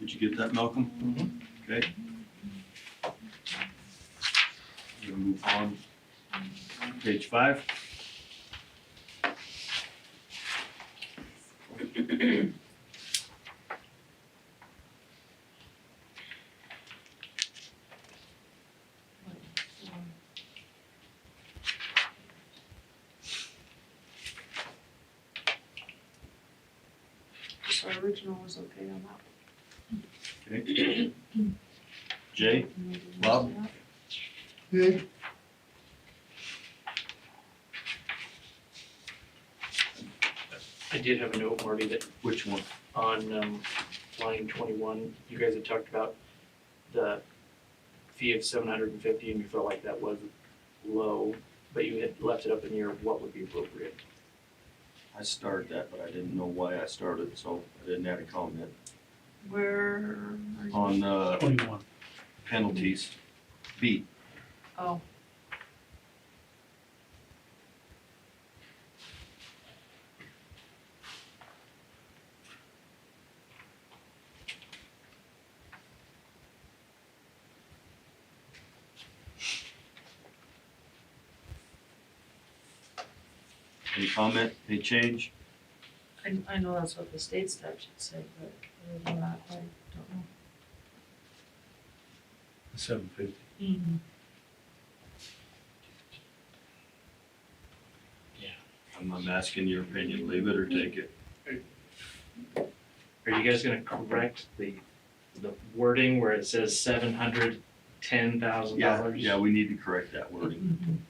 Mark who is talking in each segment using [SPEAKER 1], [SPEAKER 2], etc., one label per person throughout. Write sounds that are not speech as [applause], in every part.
[SPEAKER 1] Did you get that, Malcolm?
[SPEAKER 2] Mhm.
[SPEAKER 1] Okay. We're gonna move on. Page five.
[SPEAKER 3] So our original was okay on that.
[SPEAKER 1] Okay. Jay, Bob?
[SPEAKER 2] Good.
[SPEAKER 4] I did have a note, Marty, that
[SPEAKER 1] which one?
[SPEAKER 4] on um, line twenty-one, you guys had talked about the fee of seven hundred and fifty, and you felt like that was low, but you had left it up in the air, of what would be appropriate?
[SPEAKER 1] I started that, but I didn't know why I started, so I didn't add a comment
[SPEAKER 3] Where are you?
[SPEAKER 1] on uh,
[SPEAKER 2] Twenty-one.
[SPEAKER 1] penalties. B,
[SPEAKER 3] Oh,
[SPEAKER 1] any comment, any change?
[SPEAKER 3] I, I know that's what the state statute said, but other than that, I don't know.
[SPEAKER 2] Seven fifty.
[SPEAKER 1] I'm I'm asking your opinion, leave it or take it.
[SPEAKER 4] Are you guys gonna correct the, the wording where it says seven hundred ten thousand
[SPEAKER 1] Yeah,
[SPEAKER 4] dollars?
[SPEAKER 1] yeah, we need to correct that wording.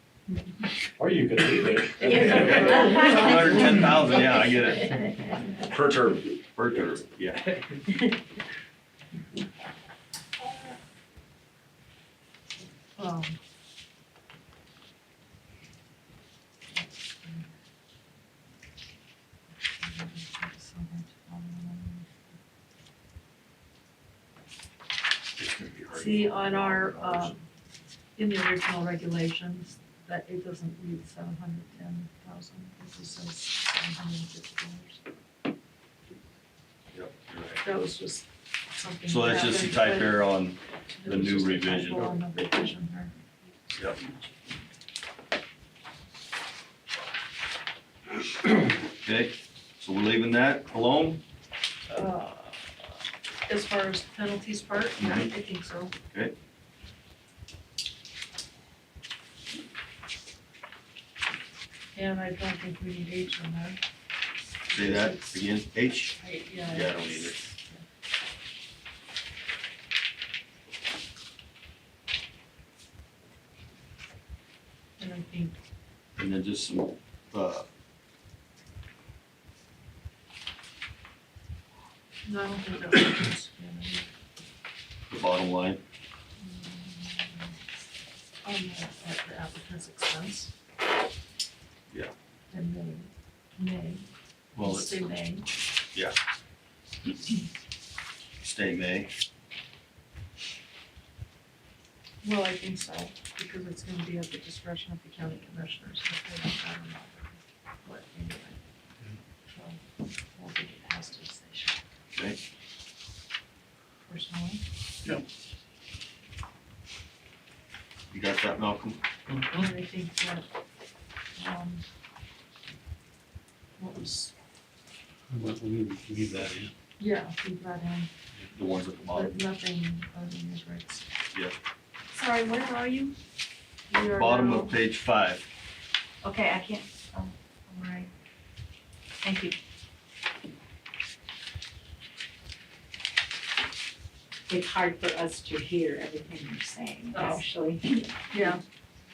[SPEAKER 5] Or you could leave it.
[SPEAKER 3] [laughs]
[SPEAKER 1] Hundred ten thousand, yeah, I get it.
[SPEAKER 5] Per term.
[SPEAKER 1] Burger, yeah.
[SPEAKER 3] Um,
[SPEAKER 1] It's gonna be hard.
[SPEAKER 3] See, on our, uh, in the original regulations, that it doesn't read seven hundred ten thousand, it just says seven hundred and fifty dollars.
[SPEAKER 1] Yep, you're right.
[SPEAKER 3] That was just something.
[SPEAKER 1] So that's
[SPEAKER 3] that
[SPEAKER 1] just a
[SPEAKER 3] happened,
[SPEAKER 1] type
[SPEAKER 3] but
[SPEAKER 1] error on,
[SPEAKER 3] it
[SPEAKER 1] the
[SPEAKER 3] was
[SPEAKER 1] new
[SPEAKER 3] just a
[SPEAKER 1] revision.
[SPEAKER 3] typo on the revision there.
[SPEAKER 1] yep. Okay, so we're leaving that alone?
[SPEAKER 3] Uh, As far as penalties part, yeah,
[SPEAKER 1] Mm-hmm.
[SPEAKER 3] I think so. And I don't think we need H on that.
[SPEAKER 1] Say that again, H?
[SPEAKER 3] I, yeah.
[SPEAKER 1] Yeah, I don't either.
[SPEAKER 3] And I think
[SPEAKER 1] And then just some, uh,
[SPEAKER 3] No, I don't think that was.
[SPEAKER 1] the bottom line.
[SPEAKER 3] On the, at the applicant's expense.
[SPEAKER 1] Yeah.
[SPEAKER 3] And then, may,
[SPEAKER 1] Well, it's
[SPEAKER 3] say may,
[SPEAKER 1] stay May.
[SPEAKER 3] well, I think so, because it's gonna be at the discretion of the county commissioners, if they don't have them What, anyway. So, I don't think it has to say should.
[SPEAKER 1] Okay.
[SPEAKER 3] Personally,
[SPEAKER 1] You got that, Malcolm?
[SPEAKER 3] and I think that, um, what was,
[SPEAKER 2] Leave that in.
[SPEAKER 3] yeah, we brought in
[SPEAKER 1] The ones at the bottom.
[SPEAKER 3] But nothing on the news rights.
[SPEAKER 1] Yeah.
[SPEAKER 3] Sorry, where are you? We are
[SPEAKER 1] Bottom
[SPEAKER 3] now-
[SPEAKER 1] of page five.
[SPEAKER 6] Okay, I can't, oh, all right. Thank you. It's hard for us to hear everything you're saying,
[SPEAKER 3] Oh.
[SPEAKER 6] actually.
[SPEAKER 3] Yeah,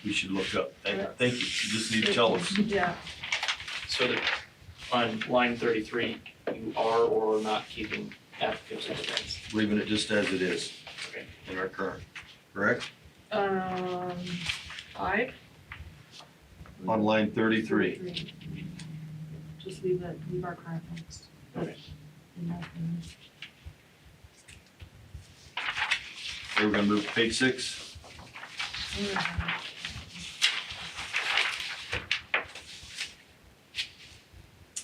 [SPEAKER 1] We should look up. Thank thank you. You just need to tell us.
[SPEAKER 3] yeah,
[SPEAKER 4] So that on line thirty-three, you are or are not keeping applicants' expense.
[SPEAKER 1] Leaving it just as it is
[SPEAKER 4] Okay.
[SPEAKER 1] in our current, correct?
[SPEAKER 3] um, five.
[SPEAKER 1] On line thirty-three.
[SPEAKER 3] Three. Just leave it, leave our current ones.
[SPEAKER 4] Okay.
[SPEAKER 3] In my opinion.
[SPEAKER 1] Okay, We're gonna move to page six.
[SPEAKER 3] Where is it?